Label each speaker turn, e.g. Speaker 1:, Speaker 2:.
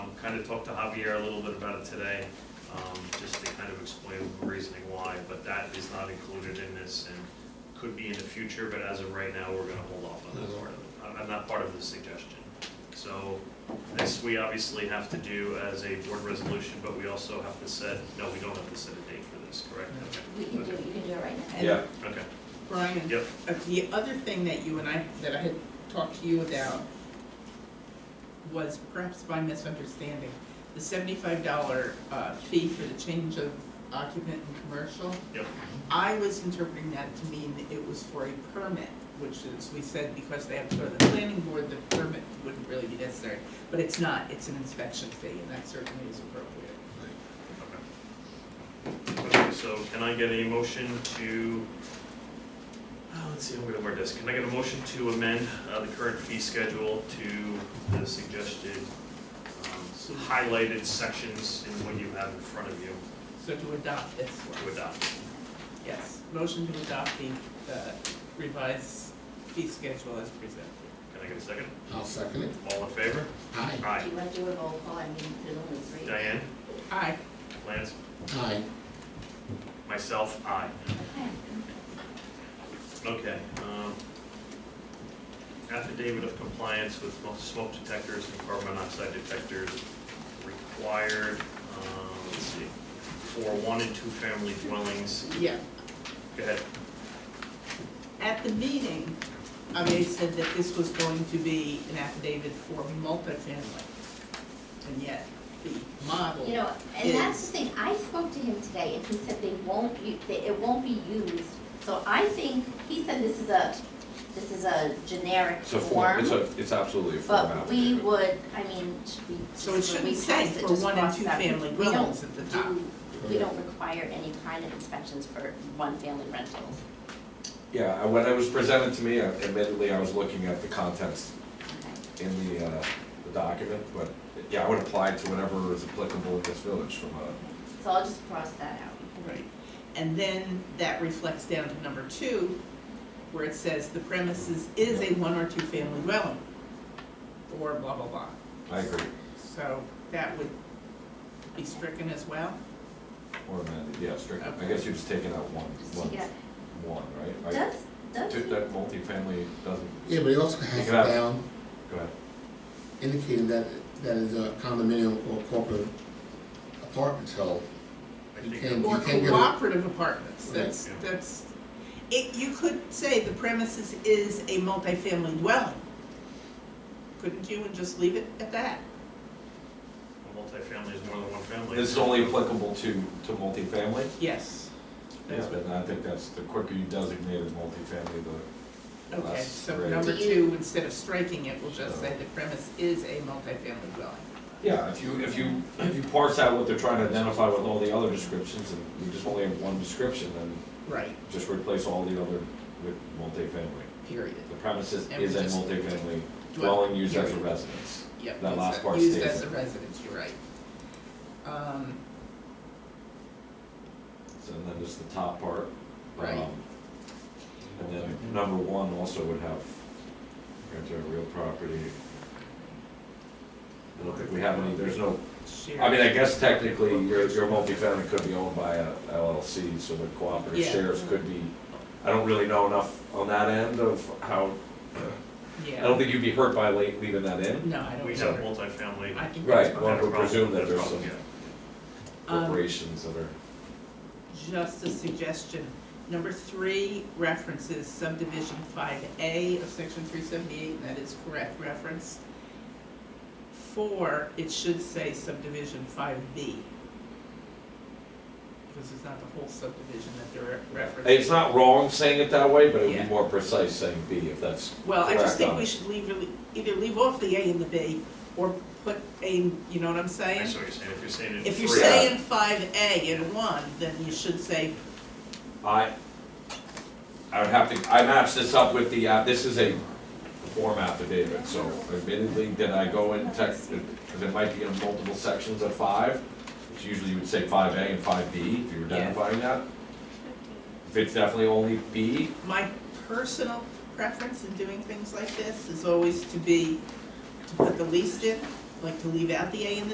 Speaker 1: kind of talked to Javier a little bit about it today, um, just to kind of explain the reasoning why, but that is not included in this and could be in the future, but as of right now, we're gonna hold off on that part of it. I'm- I'm not part of the suggestion. So this we obviously have to do as a board resolution, but we also have to set, no, we don't have to set a date for this, correct?
Speaker 2: We can do,
Speaker 1: Okay.
Speaker 2: you can do it right now.
Speaker 3: Yeah,
Speaker 1: Okay,
Speaker 4: Brian,
Speaker 1: yep,
Speaker 4: uh, the other thing that you and I, that I had talked to you about was perhaps my misunderstanding. The seventy-five dollar uh, fee for the change of occupant in commercial.
Speaker 1: Yep.
Speaker 4: I was interpreting that to mean that it was for a permit, which is, we said, because they have to go to the planning board, the permit wouldn't really be necessary. But it's not, it's an inspection fee, and that certainly is appropriate.
Speaker 1: okay. Okay, so can I get a motion to, uh, let's see, I'm gonna word this, can I get a motion to amend, uh, the current fee schedule to the suggested, um, highlighted sections in what you have in front of you
Speaker 4: So to adopt this one.
Speaker 1: to adopt?
Speaker 4: Yes, motion to adopt the uh, revised fee schedule as presented.
Speaker 1: Can I get a second?
Speaker 5: I'll second it.
Speaker 1: All in favor?
Speaker 5: Aye.
Speaker 1: Aye.
Speaker 2: Do you want to do a roll call? I mean, there's only three.
Speaker 1: Diane,
Speaker 4: Aye.
Speaker 1: Lance,
Speaker 5: Aye.
Speaker 1: myself, aye.
Speaker 2: Okay.
Speaker 1: Okay, um, affidavit of compliance with mo- smoke detectors and carbon monoxide detectors required, um, let's see, for one and two family dwellings.
Speaker 4: Yeah,
Speaker 1: Go ahead.
Speaker 4: at the meeting, I mean, they said that this was going to be an affidavit for multifamily. And yet, the model.
Speaker 2: You know, and that's the thing, I spoke to him today and he said they won't, u- they- it won't be used. So I think, he said this is a, this is a generic
Speaker 6: It's a form, it's
Speaker 2: form,
Speaker 6: a, it's absolutely a form
Speaker 2: but we
Speaker 6: affidavit.
Speaker 2: would, I mean, should we,
Speaker 4: So it
Speaker 2: should
Speaker 4: shouldn't
Speaker 2: we
Speaker 4: say
Speaker 2: pass it,
Speaker 4: for
Speaker 2: just
Speaker 4: one and
Speaker 2: cross
Speaker 4: two
Speaker 2: that?
Speaker 4: family
Speaker 2: We don't
Speaker 4: dwellings at the top.
Speaker 2: do- We don't require any kind of inspections for one-family rentals.
Speaker 6: Yeah, I- when it was presented to me, I- admittedly, I was looking at the contents
Speaker 2: Okay.
Speaker 6: in the, uh, the document, but, yeah, I would apply to whatever is applicable in this village from a,
Speaker 2: So I'll just cross that out.
Speaker 4: Right, and then that reflects down to number two, where it says the premises is a one or two family dwelling, or blah, blah, blah.
Speaker 6: I agree,
Speaker 4: So that would be stricken as well?
Speaker 6: or amended, yeah, strict. I
Speaker 4: Okay.
Speaker 6: guess you're just taking out one,
Speaker 2: Just
Speaker 6: one,
Speaker 2: take it
Speaker 6: one, right?
Speaker 2: out.
Speaker 6: Like,
Speaker 2: Does, does,
Speaker 6: two- That multifamily doesn't,
Speaker 5: Yeah, but it also has
Speaker 6: Take it out.
Speaker 5: down
Speaker 6: go ahead.
Speaker 5: indicating that, that is a condominium or corporate apartment, so.
Speaker 1: I
Speaker 5: You
Speaker 1: think-
Speaker 5: can-
Speaker 4: Or
Speaker 5: can't get a-
Speaker 4: cooperative apartments, that's,
Speaker 1: Right.
Speaker 4: that's, it, you could say the premises is a multifamily dwelling. Couldn't you, and just leave it at that?
Speaker 1: A multifamily is more than one family.
Speaker 6: This is only applicable to, to multifamily?
Speaker 4: Yes. That's what-
Speaker 6: And I think that's, the quicker you designate as multifamily, the
Speaker 4: Okay,
Speaker 6: less
Speaker 4: so
Speaker 6: gray.
Speaker 4: number
Speaker 2: Do you-
Speaker 4: two, instead of striking it, we'll just say the premise is a multifamily dwelling.
Speaker 6: Yeah, if you, if you, if you parse out what they're trying to identify with all the other descriptions, and we just only have one description, then
Speaker 4: Right.
Speaker 6: just replace all the other with multifamily.
Speaker 4: Period.
Speaker 6: The premises
Speaker 4: And we
Speaker 6: is a
Speaker 4: just-
Speaker 6: multifamily dwelling used as a
Speaker 4: Period.
Speaker 6: residence.
Speaker 4: Yep.
Speaker 6: That last part
Speaker 4: Used
Speaker 6: stays
Speaker 4: as a
Speaker 6: in.
Speaker 4: residence, you're right. Um,
Speaker 6: So then there's the top part.
Speaker 4: Right.
Speaker 6: um, And then number one also would have, rent a real property. I don't think we have any, there's no
Speaker 4: shared.
Speaker 6: I mean, I guess technically, your, your multifamily could be owned by a LLC, so the cooperative
Speaker 4: Yeah.
Speaker 6: shares could be, I don't really know enough on that end of how, I don't
Speaker 4: Yeah.
Speaker 6: think you'd be hurt by la- leaving that in.
Speaker 4: No, I don't.
Speaker 1: We have
Speaker 4: either.
Speaker 1: multifamily.
Speaker 4: I think that's
Speaker 6: Right,
Speaker 4: fine.
Speaker 6: well,
Speaker 1: Had a
Speaker 6: we presume that
Speaker 1: problem,
Speaker 6: there's some
Speaker 1: yeah.
Speaker 4: Um,
Speaker 6: corporations that are,
Speaker 4: just a suggestion. Number three references subdivision five A of section three seventy-eight, and that is correct reference. Four, it should say subdivision five B. Because it's not the whole subdivision that they're referencing.
Speaker 6: it's not wrong saying it that way, but it would
Speaker 4: Yeah.
Speaker 6: be more precise saying B if that's
Speaker 4: Well, I just
Speaker 6: correct um,
Speaker 4: think
Speaker 6: on
Speaker 4: we
Speaker 6: it.
Speaker 4: should leave, really- either leave off the A and the B, or put a, you know what I'm
Speaker 1: I
Speaker 4: saying?
Speaker 1: see what you're saying, if you're saying it in
Speaker 4: If you're
Speaker 1: three-
Speaker 6: Yeah.
Speaker 4: saying five A and one, then you should say,
Speaker 6: I, I would have to, I matched this up with the, uh, this is a form affidavit, so admittedly, did I go in text, because it might be in multiple sections of five, which usually you would say five A and five B, if you were
Speaker 4: Yeah.
Speaker 6: identifying that. If it's definitely only B,
Speaker 4: my personal preference in doing things like this is always to be, to put the least in, like to leave out the A and the